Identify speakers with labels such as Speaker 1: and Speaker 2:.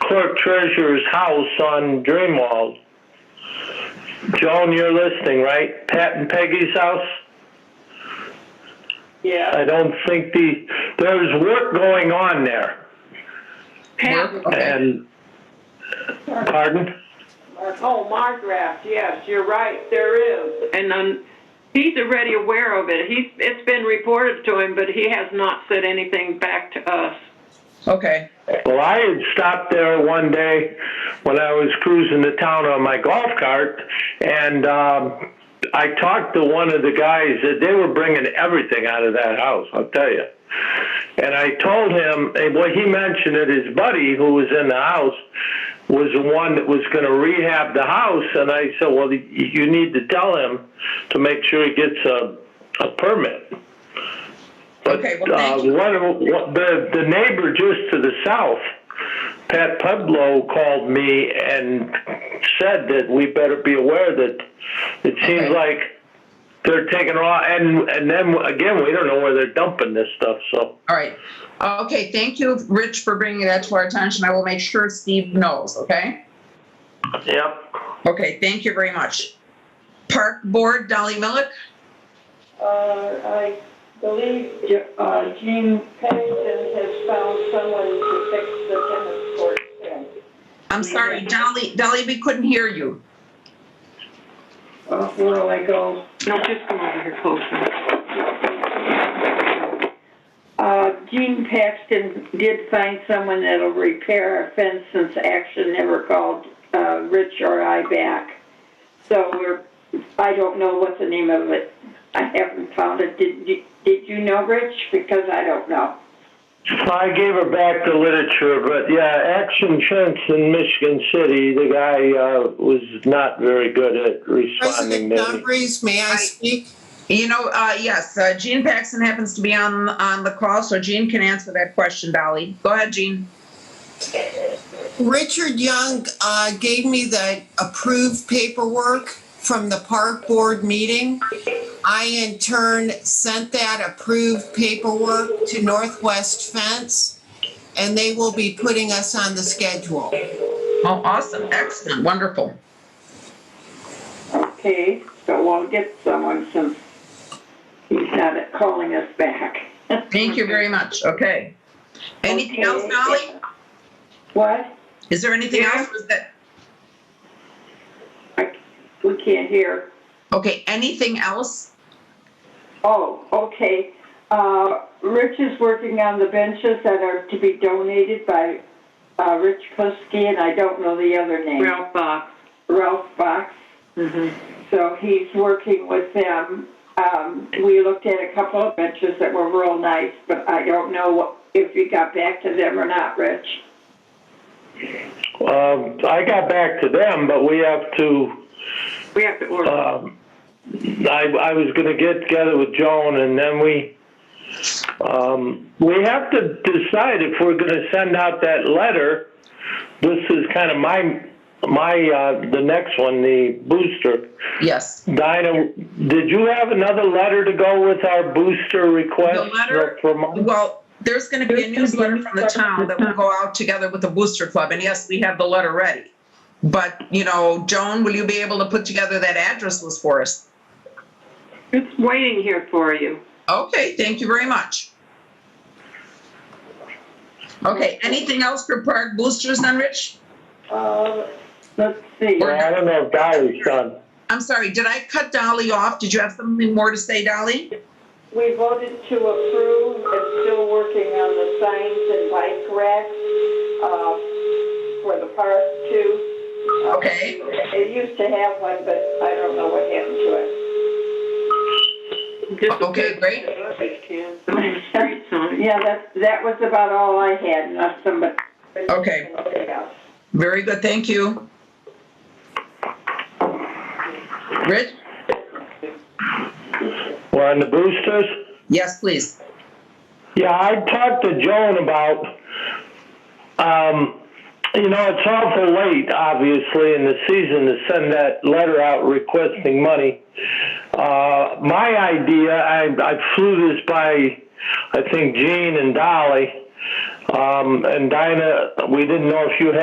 Speaker 1: clerk treasurer's house on Dreamwald. Joan, you're listening, right? Pat and Peggy's house?
Speaker 2: Yeah.
Speaker 3: Uh,
Speaker 1: I don't think the, there's work going on there.
Speaker 3: Pat,
Speaker 1: And, pardon?
Speaker 2: Oh, Margraft, yes, you're right, there is. And um he's already aware of it. He's, it's been reported to him, but he has not said anything back to us.
Speaker 3: okay,
Speaker 1: Well, I had stopped there one day when I was cruising the town on my golf cart, and um, I talked to one of the guys that they were bringing everything out of that house. I'll tell you. And I told him, and what he mentioned that his buddy who was in the house was the one that was going to rehab the house. And I said, well, you need to tell him to make sure he gets a, a permit. But,
Speaker 3: Okay, well, thank
Speaker 1: uh,
Speaker 3: you.
Speaker 1: One, of- one- the, the neighbor just to the south, Pat Pueblo, called me and said that we better be aware that it
Speaker 3: Okay.
Speaker 1: seems like they're taking raw, and, and then again, we don't know where they're dumping this stuff, so.
Speaker 3: all right. Uh, Okay, thank you, Rich, for bringing that to our attention. I will make sure Steve knows, okay?
Speaker 1: Yep.
Speaker 3: Okay, thank you very much. Park Board, Dolly Millick?
Speaker 4: Uh, I believe Je- uh, Gene Pennington has found someone to fix the tennis court fence.
Speaker 3: I'm sorry, Dolly, Dolly, we couldn't hear you.
Speaker 4: Uh, Where do I go?
Speaker 2: No, just come over here closer.
Speaker 4: Uh, Gene Paxton did find someone that'll repair our fence since Action never called uh, Rich or I back. So we're, I don't know what the name of it. I haven't found it. Did, did- did you know, Rich? Because I don't know.
Speaker 1: I gave her back the literature, but yeah, Action Fence in Michigan City, the guy uh, was not very good at responding.
Speaker 5: President
Speaker 1: Maybe.
Speaker 5: Dumbriz, may I
Speaker 3: Hi.
Speaker 5: speak?
Speaker 3: You know, uh, yes, uh, Gene Paxton happens to be on, on the call, so Gene can answer that question, Dolly. Go ahead, Gene.
Speaker 5: Richard Young uh, gave me the approved paperwork from the park board meeting. I in turn sent that approved paperwork to Northwest Fence, and they will be putting us on the schedule.
Speaker 3: Oh, awesome, excellent, wonderful.
Speaker 4: Okay, so we'll get someone since he's not calling us back.
Speaker 3: Thank you very much, okay. Anything else,
Speaker 4: Okay.
Speaker 3: Dolly?
Speaker 4: What?
Speaker 3: Is there anything
Speaker 4: Yeah.
Speaker 3: else? Was that,
Speaker 4: I, we can't hear.
Speaker 3: okay, anything else?
Speaker 4: Oh, okay. Uh, Rich is working on the benches that are to be donated by, uh, Rich Puskey, and I don't know the other name.
Speaker 2: Ralph Box.
Speaker 4: Ralph Fox.
Speaker 3: Mm-hmm.
Speaker 4: So he's working with them. Um, we looked at a couple of benches that were real nice, but I don't know what, if you got back to them or not, Rich.
Speaker 1: Um, I got back to them, but we have to.
Speaker 2: We have to order.
Speaker 1: Um, I, I was going to get together with Joan, and then we um, we have to decide if we're going to send out that letter. This is kind of my my uh, the next one, the booster.
Speaker 3: Yes,
Speaker 1: Dinah, did you have another letter to go with our booster request?
Speaker 3: The letter-
Speaker 1: From-
Speaker 3: well, there's gonna be a newsletter from the town that will go out together with the Booster Club, and yes, we have the letter ready. But, you know, Joan, will you be able to put together that address list for us?
Speaker 2: It's waiting here for you.
Speaker 3: Okay, thank you very much. Okay, anything else for park boosters then, Rich?
Speaker 4: Uh, let's see.
Speaker 3: Or-
Speaker 1: I don't know if Dolly's done.
Speaker 3: I'm sorry, did I cut Dolly off? Did you have something more to say, Dolly?
Speaker 4: We voted to approve and still working on the signs and bike racks, uh, for the park too.
Speaker 3: Okay.
Speaker 4: It used to have one, but I don't know what happened to it.
Speaker 2: Just a
Speaker 3: Okay,
Speaker 2: good-
Speaker 3: great.
Speaker 2: Some street sign.
Speaker 4: Yeah, that, that was about all I had, unless somebody.
Speaker 3: Okay. Very good, thank you. Rich?
Speaker 1: We're on the boosters?
Speaker 3: Yes, please.
Speaker 1: Yeah, I talked to Joan about, um, you know, it's awful late, obviously, in the season to send that letter out requesting money. Uh, my idea, I, I flew this by, I think, Gene and Dolly, um, and Dinah, we didn't know if you had.